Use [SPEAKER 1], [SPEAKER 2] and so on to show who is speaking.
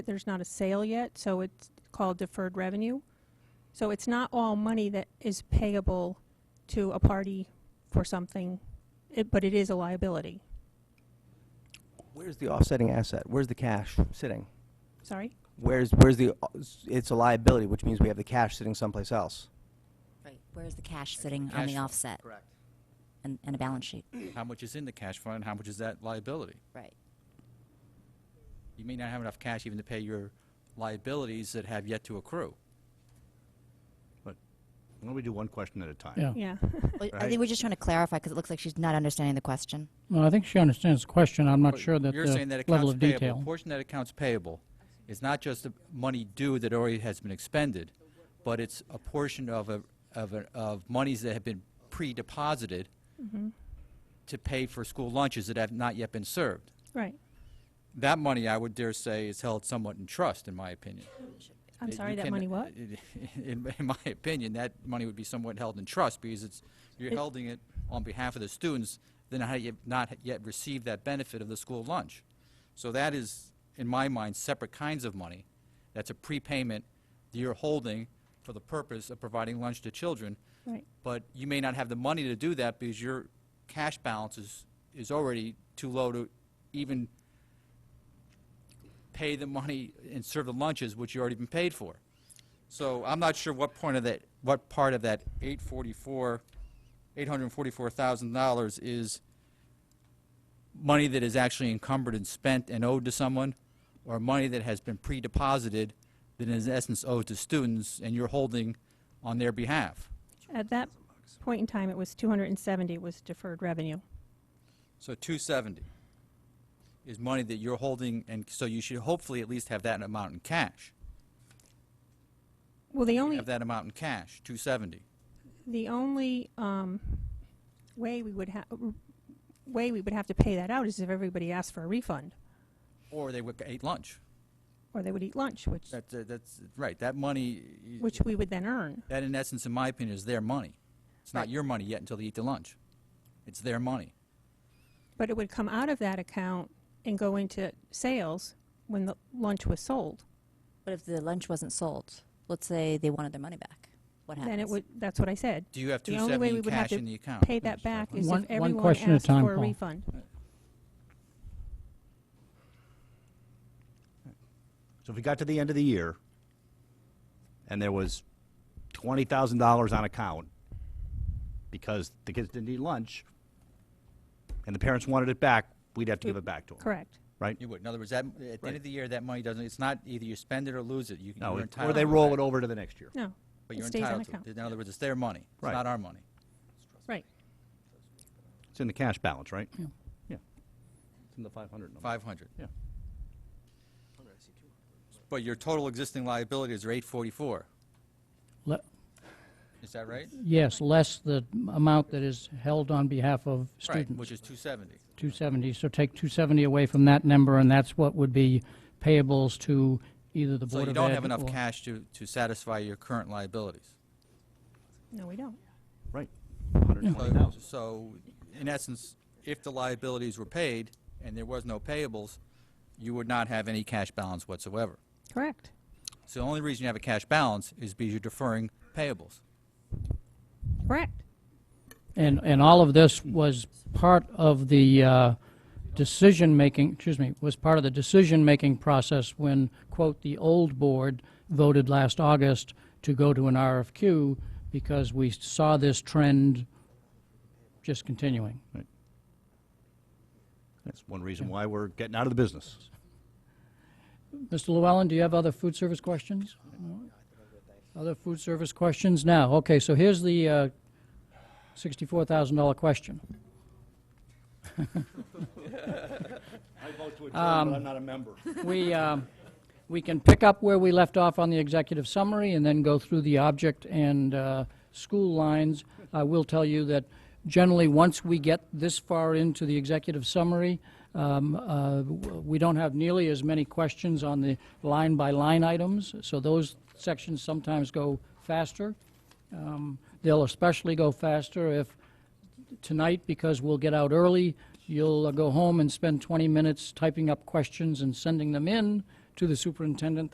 [SPEAKER 1] there's not a sale yet, so it's called deferred revenue. So it's not all money that is payable to a party for something, it- but it is a liability.
[SPEAKER 2] Where's the offsetting asset? Where's the cash sitting?
[SPEAKER 1] Sorry?
[SPEAKER 2] Where's, where's the, it's a liability, which means we have the cash sitting someplace else.
[SPEAKER 3] Right, where's the cash sitting on
[SPEAKER 4] cash
[SPEAKER 3] the
[SPEAKER 4] flow,
[SPEAKER 3] offset? Correct. And, and a balance sheet,
[SPEAKER 4] How much is in the cash fund, how much is that liability?
[SPEAKER 3] right.
[SPEAKER 4] You may not have enough cash even to pay your liabilities that have yet to accrue.
[SPEAKER 5] But why don't we do one question at a time?
[SPEAKER 6] Yeah.
[SPEAKER 1] Yeah.
[SPEAKER 3] Well, I
[SPEAKER 5] Right.
[SPEAKER 3] think we're just trying to clarify, because it looks like she's not understanding the question.
[SPEAKER 6] Well, I think she understands the question. I'm not
[SPEAKER 4] But
[SPEAKER 6] sure that
[SPEAKER 4] You're saying that
[SPEAKER 6] the level
[SPEAKER 4] accounts
[SPEAKER 6] of
[SPEAKER 4] payable,
[SPEAKER 6] detail.
[SPEAKER 4] portion of that accounts payable is not just the money due that already has been expended, but it's a portion of, a- of, a- of monies that have been pre-deposited to pay for school lunches that have not yet been served.
[SPEAKER 1] Right.
[SPEAKER 4] That money, I would dare say, is held somewhat in trust, in my opinion.
[SPEAKER 1] I'm
[SPEAKER 4] Uh,
[SPEAKER 1] sorry,
[SPEAKER 4] you
[SPEAKER 1] that
[SPEAKER 4] can-
[SPEAKER 1] money what?
[SPEAKER 4] In, in my opinion, that money would be somewhat held in trust because it's, you're holding it on behalf of the students that not yet, not yet received that benefit of the school lunch. So that is, in my mind, separate kinds of money. That's a prepayment that you're holding for the purpose of providing lunch to children.
[SPEAKER 1] Right.
[SPEAKER 4] But you may not have the money to do that because your cash balance is, is already too low to even pay the money and serve the lunches, which you already been paid for. So I'm not sure what point of that, what part of that 844, $844,000 is money that is actually encumbered and spent and owed to someone, or money that has been pre-deposited that is in essence owed to students and you're holding on their behalf.
[SPEAKER 1] At that point in time, it was 270 was deferred revenue.
[SPEAKER 4] So 270 is money that you're holding, and so you should hopefully at least have that amount in cash.
[SPEAKER 1] Well, the
[SPEAKER 4] You
[SPEAKER 1] only,
[SPEAKER 4] Have that amount in cash, 270.
[SPEAKER 1] the only um, way we would have, way we would have to pay that out is if everybody asked for a refund,
[SPEAKER 4] Or they would eat lunch.
[SPEAKER 1] or they would eat lunch, which,
[SPEAKER 4] That's, uh, that's, right, that money, y-
[SPEAKER 1] which we would then earn.
[SPEAKER 4] that in essence, in my opinion, is their money. It's not your money yet until they eat the lunch. It's their money.
[SPEAKER 1] But it would come out of that account and go into sales when the lunch was sold.
[SPEAKER 3] But if the lunch wasn't sold, let's say they wanted their money back, what happens?
[SPEAKER 1] Then it would, that's what I said.
[SPEAKER 4] Do you have
[SPEAKER 1] The only way
[SPEAKER 4] 270
[SPEAKER 1] we
[SPEAKER 4] in
[SPEAKER 1] would have
[SPEAKER 4] cash in the
[SPEAKER 1] to
[SPEAKER 4] account?
[SPEAKER 1] pay that back is
[SPEAKER 6] One-
[SPEAKER 1] if
[SPEAKER 6] one
[SPEAKER 1] everyone
[SPEAKER 6] question at a
[SPEAKER 1] asked
[SPEAKER 6] time,
[SPEAKER 1] for a
[SPEAKER 6] Paul.
[SPEAKER 1] refund.
[SPEAKER 5] So if we got to the end of the year and there was twenty thousand dollars on account because the kids didn't eat lunch and the parents wanted it back, we'd have to give it back to them.
[SPEAKER 1] Correct.
[SPEAKER 5] Right?
[SPEAKER 4] You would. In other words, that, at the end of the year, that money doesn't, it's not either you spend it or lose it. You
[SPEAKER 5] No,
[SPEAKER 4] are
[SPEAKER 5] it-
[SPEAKER 4] entitled.
[SPEAKER 5] or they roll it over to the next year.
[SPEAKER 1] No,
[SPEAKER 4] But
[SPEAKER 1] it
[SPEAKER 4] you're
[SPEAKER 1] stays on
[SPEAKER 4] entitled to
[SPEAKER 1] account.
[SPEAKER 4] it. In other words, it's their money. It's
[SPEAKER 5] Right.
[SPEAKER 4] not our money.
[SPEAKER 1] Right.
[SPEAKER 5] It's in the cash balance, right? Yeah. Yeah. It's in the five hundred number.
[SPEAKER 4] 500.
[SPEAKER 5] Yeah.
[SPEAKER 4] But your total existing liabilities are 844.
[SPEAKER 6] Le-
[SPEAKER 4] Is that right?
[SPEAKER 6] Yes, less the m- amount that is held on behalf of
[SPEAKER 4] Right,
[SPEAKER 6] students.
[SPEAKER 4] which is 270.
[SPEAKER 6] 270, so take 270 away from that number, and that's what would be payables to either the
[SPEAKER 4] So
[SPEAKER 6] Board
[SPEAKER 4] you
[SPEAKER 6] of Ed.
[SPEAKER 4] don't have enough
[SPEAKER 6] or-
[SPEAKER 4] cash to, to satisfy your current liabilities.
[SPEAKER 1] No, we don't.
[SPEAKER 5] Right. Hundred and
[SPEAKER 4] So-
[SPEAKER 5] twenty thousand.
[SPEAKER 4] So, in essence, if the liabilities were paid and there was no payables, you would not have any cash balance whatsoever.
[SPEAKER 1] Correct.
[SPEAKER 4] So the only reason you have a cash balance is because you're deferring payables.
[SPEAKER 1] Correct.
[SPEAKER 6] And, and all of this was part of the uh, decision-making, excuse me, was part of the decision-making process when, quote, "the old board" voted last August to go to an RFQ because we saw this trend just continuing.
[SPEAKER 5] That's one reason why we're getting out of the business.
[SPEAKER 6] Mr. Llewellyn, do you have other food service questions? No? Other food service questions now? Okay, so here's the uh, $64,000 question.
[SPEAKER 5] I vote to adjourn, but I'm not a member.
[SPEAKER 6] We, um, we can pick up where we left off on the executive summary and then go through the object and uh, school lines. I will tell you that generally, once we get this far into the executive summary, um, uh, w- we don't have nearly as many questions on the line-by-line items, so those sections sometimes go faster. Um, They'll especially go faster if tonight because we'll get out early. You'll uh, go home and spend 20 minutes typing up questions and sending them in to the superintendent